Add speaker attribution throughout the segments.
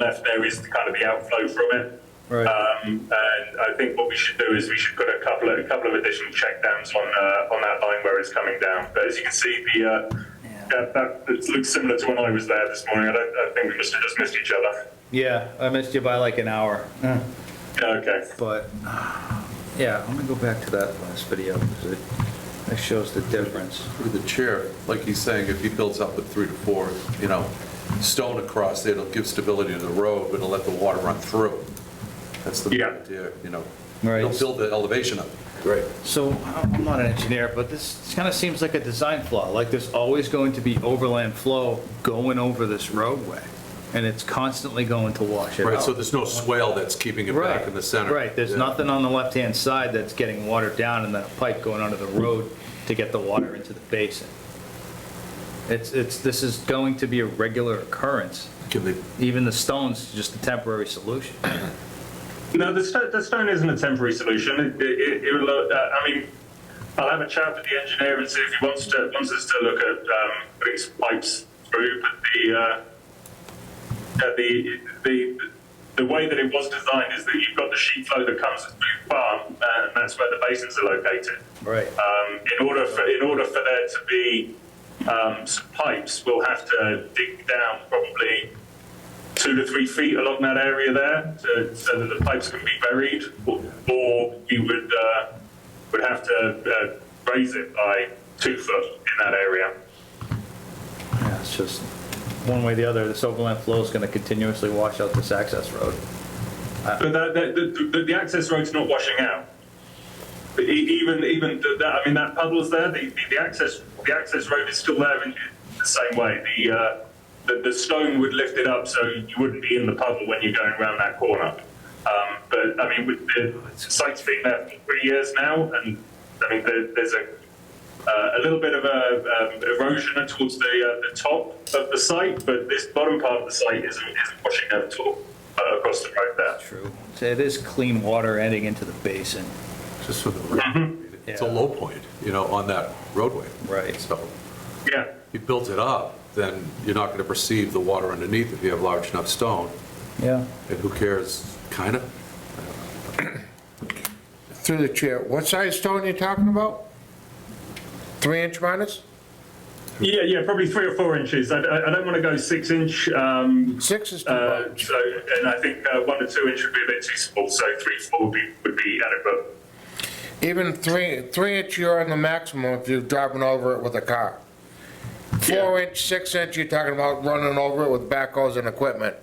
Speaker 1: left there is kind of the outflow from it.
Speaker 2: Right.
Speaker 3: Uh,
Speaker 1: Um, and I think what we should do is we should put a couple of a couple of additional checkdowns on uh, on that line where it's coming down. But as you can see, the uh, that, that it looks similar to when I was there this morning. I, don't, I think we must have just missed each other.
Speaker 2: Yeah, I missed you by like an hour, Eh,
Speaker 1: Okay.
Speaker 2: but, yeah, I'm gonna go back to that last video, because it, it shows the difference.
Speaker 3: Through the chair, like he's saying, if he builds up with three to four, you know, stone across there, it'll give stability to the road, but it'll let the water run through. That's the
Speaker 1: Yeah.
Speaker 3: idea, you know.
Speaker 2: Right.
Speaker 3: It'll build the elevation up. Right.
Speaker 2: So, I'm not an engineer, but this kind of seems like a design flaw, like there's always going to be overland flow going over this roadway, and it's constantly going to wash it out.
Speaker 3: Right, so there's no swale that's keeping it back in the center.
Speaker 2: Right, there's
Speaker 3: Yeah.
Speaker 2: nothing on the left-hand side that's getting watered down and then a pipe going under the road to get the water into the basin. It's, it's, this is going to be a regular occurrence.
Speaker 3: Can they,
Speaker 2: Even the stone's just a temporary solution.
Speaker 1: No, the, sto- the stone isn't a temporary solution. It, it, it, it will, uh, I mean, I'll have a chat with the engineer and see if he wants to wants us to look at um, putting some pipes through. But the, uh, uh, the the the way that it was designed is that you've got the sheet flow that comes through the farm, uh, and that's where the basins are located.
Speaker 2: Right.
Speaker 1: Um, in order for in order for there to be um, some pipes, we'll have to dig down probably two to three feet along that area there to, so that the pipes can be buried, or, or we would uh, would have to uh, raise it by two foot in that area.
Speaker 2: Yeah, it's just, one way or the other, this overland flow is gonna continuously wash out this access road.
Speaker 1: But the, the, the, the, the access road's not washing out. But e- even even th- that, I mean, that puddle's there. The, the, the access the access road is still there in the same way. The, uh, the the stone would lift it up, so you wouldn't be in the puddle when you're going around that corner. Um, but I mean, with the site's been there for three years now, and I mean, there, there's a uh, a little bit of a um, erosion towards the uh, the top of the site, but this bottom part of the site isn't, isn't washing out at all uh, across the road there.
Speaker 2: True. So it is clean water ending into the basin.
Speaker 3: just for the, it's a
Speaker 2: Yeah.
Speaker 3: low point, you know, on that roadway.
Speaker 2: Right.
Speaker 3: So
Speaker 1: Yeah.
Speaker 3: if you built it up, then you're not going to perceive the water underneath if you have large enough stone,
Speaker 2: Yeah.
Speaker 3: and who cares, kind of?
Speaker 4: Through the chair, what size stone you talking about? Three inch minus?
Speaker 1: Yeah, yeah, probably three or four inches. I, I I don't want to go six inch. Um,
Speaker 4: Six is too
Speaker 1: uh,
Speaker 4: much.
Speaker 1: so, and I think uh, one or two inch would be a bit too small. So three, four would be, would be adequate.
Speaker 4: Even three, three inch, you're on the maximum if you're driving over it with a car. Four inch, six inch, you're talking about running over it with backhoes and equipment.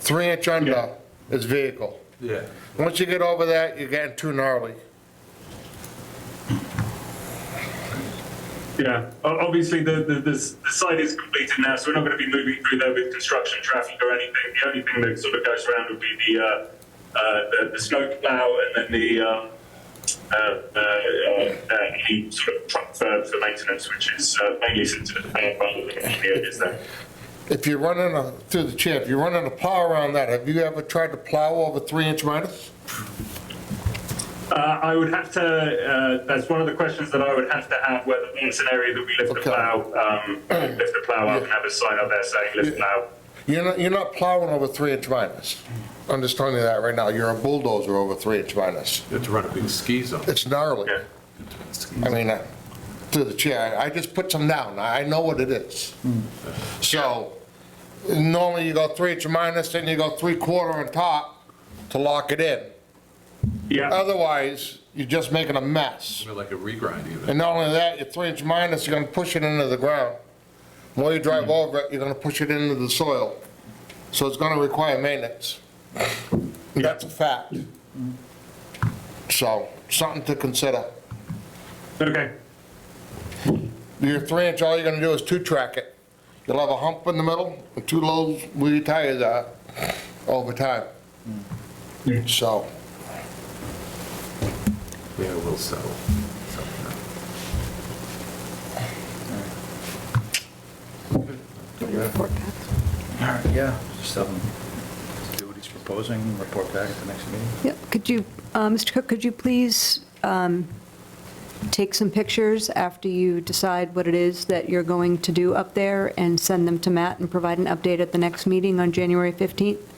Speaker 4: Three inch under is vehicle.
Speaker 3: Yeah.
Speaker 4: Once you get over that, you're getting too gnarly.
Speaker 1: Yeah. O- Obviously, the, the, the, s- the site is completed now, so we're not going to be moving through there with construction traffic or anything. The only thing that sort of goes around would be the, uh, uh, the, the snow plow and then the, um, uh, uh, uh, uh, any sort of truck for, for maintenance, which is uh, mainly sits at the back rather than the areas there.
Speaker 4: If you're running a, through the chair, if you're running a plow around that, have you ever tried to plow over three inch minus?
Speaker 1: Uh, I would have to, uh, that's one of the questions that I would have to have, whether it's an area that we lift the
Speaker 4: Okay.
Speaker 1: plow, um, lift the plow up and have a sign up there saying lift plow.
Speaker 4: You're not, you're not plowing over three inch minus. I'm just telling you that right now. You're a bulldozer over three inch minus.
Speaker 3: You have to run a big ski zone.
Speaker 4: It's gnarly.
Speaker 1: Yeah.
Speaker 4: I mean, uh, through the chair, I I just put some down. I I know what it is. So normally you go three inch minus, then you go three quarter on top to lock it in. Uh,
Speaker 1: Yeah,
Speaker 4: Otherwise, you're just making a mess.
Speaker 3: Like a regrind even.
Speaker 4: And not only that, your three inch minus, you're gonna push it into the ground. While you drive over it, you're gonna push it into the soil. So it's gonna require maintenance. That's a fact. So, something to consider.
Speaker 1: okay.
Speaker 4: Your three inch, all you're gonna do is two track it. You'll have a hump in the middle and two lows where your tires are over time. So,
Speaker 3: Yeah, we'll settle. Settle
Speaker 2: All right, yeah, just have him do what he's proposing, and report back at the next meeting.
Speaker 5: Yep, could you, uh, Mr. Cook, could you please um, take some pictures after you decide what it is that you're going to do up there and send them to Matt and provide an update at the next meeting on January 15th?